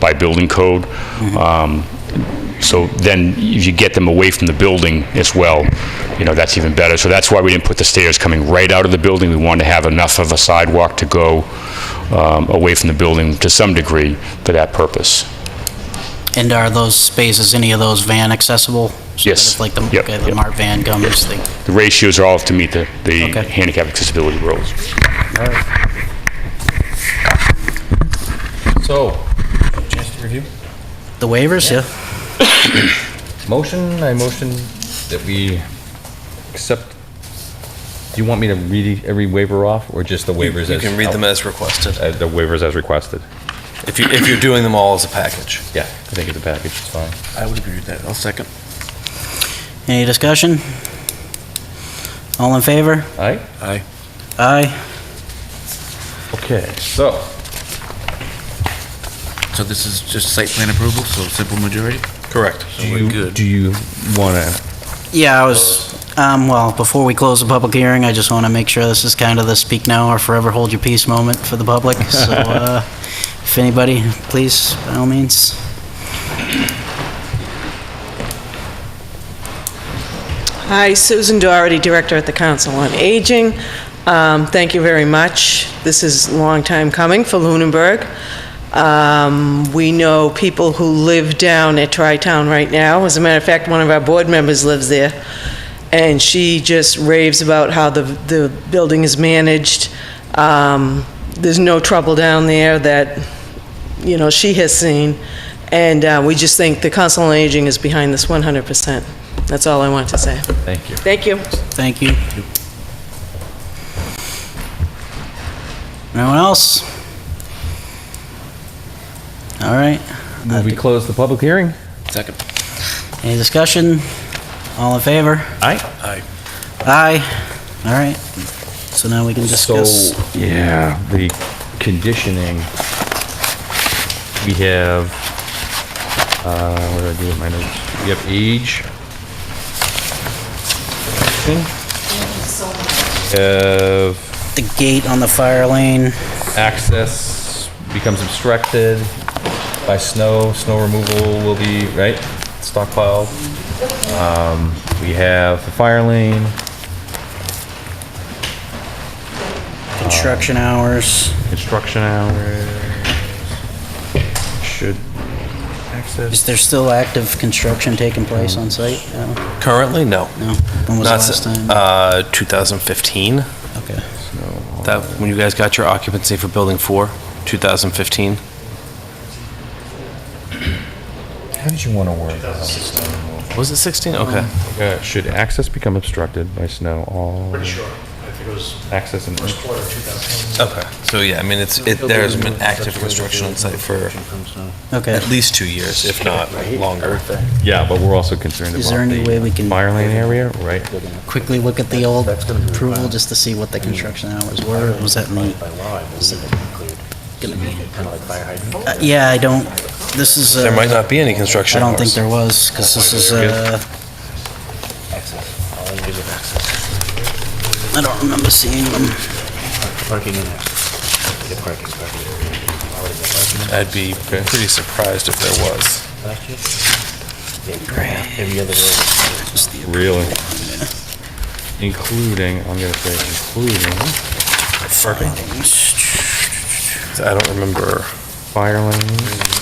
by building code. Um, So then, if you get them away from the building as well, you know, that's even better. So that's why we didn't put the stairs coming right out of the building. We wanted to have enough of a sidewalk to go um, away from the building to some degree for that purpose. And are those spaces, any of those van accessible? So that Yes. if, Like the, Yep, okay, the yep. Mart van comes, they, The ratios are all to meet the the Okay. handicap accessibility rules. So, chance to review. the waivers, yeah? Motion, I motion that we accept, do you want me to read every waiver off, or just the waivers as? You can read them as requested, Uh, The waivers as requested. if you, if you're doing them all as a package. Yeah, I think it's a package, it's fine. I would agree with that, I'll second. Any discussion? All in favor? All right? Aye. Aye. Okay. So, So this is just site plan approval, so simple majority? Correct. do you, do you want to, Yeah, I was, um, well, before we close the public hearing, I just want to make sure this is kind of the speak now or forever hold your peace moment for the public. So, uh, if anybody, please, by all means. Hi, Susan Doherty, Director at the Council on Aging. Um, Thank you very much. This is a long time coming for Lunenburg. Um, We know people who live down at Tri-Town right now. As a matter of fact, one of our board members lives there, and she just raves about how the the building is managed. Um, There's no trouble down there that you know, she has seen, and uh, we just think the Council on Aging is behind this 100%. That's all I want to say. thank you. Thank you. Thank you. Anyone else? All right. Will we close the public hearing? Second. Any discussion? All in favor? Aye. Aye. All right. So now we can discuss. So, yeah, the conditioning. We have, uh, what did I do with my notes? We have age. Have The gate on the fire lane, access becomes obstructed by snow, snow removal will be, right, stockpiled. Um, We have the fire lane, construction hours. construction hours. Should access. Is there still active construction taking place on site? No? Currently, no. No? When was the Not s- last time? Uh, 2015, Okay. that, when you guys got your occupancy for building four, 2015. How did you want to word that? Was it 16? Okay. Uh, Should access become obstructed by snow, all Pretty sure. I think it was access and, first quarter 2010. Okay, so yeah, I mean, it's, it, there's been active construction on site for Okay. at least two years, if not longer. yeah, but we're also concerned Is there about any way we the can- fire lane area, right? Quickly look at the old approval just to see what the construction hours were. or Was that me? Uh, Yeah, I don't, this is. uh, There might not be any I construction don't think hours. there was, because this is, uh... I don't remember seeing them. I'd be pretty surprised if there was. Really? Including, I'm gonna say including I don't remember fire lane.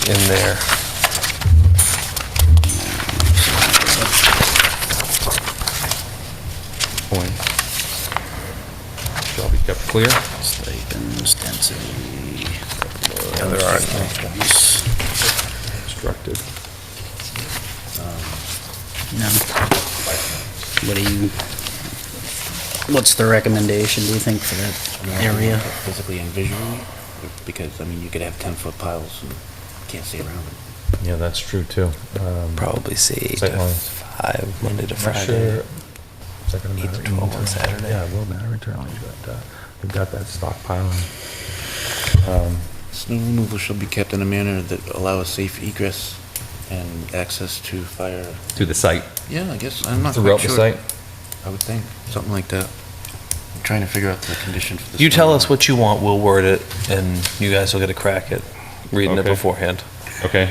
in there. point. Shall be kept clear. Stipends, density... Yeah, there aren't. Obstructed. No. What do you... What's the recommendation, do you think, for that area? Physically and visually, because, I mean, you could have 10-foot piles and can't see around them. Yeah, that's true too. Um, Probably say eight Sight to lines. five, Monday to I'm not Friday. sure- Is that gonna Eight to matter 12 on internally? Saturday. Yeah, it will matter internally, but, uh, we've got that stockpiling. Um, Snow removal shall be kept in a manner that allow a safe egress and access to fire. To the site. Yeah, I guess, I'm not Throughout quite the sure. site. I would think, something like that. I'm trying to figure out the condition for the. You snow tell us removal. what you want, we'll word it, and you guys will get a crack at reading it Okay. beforehand. Okay.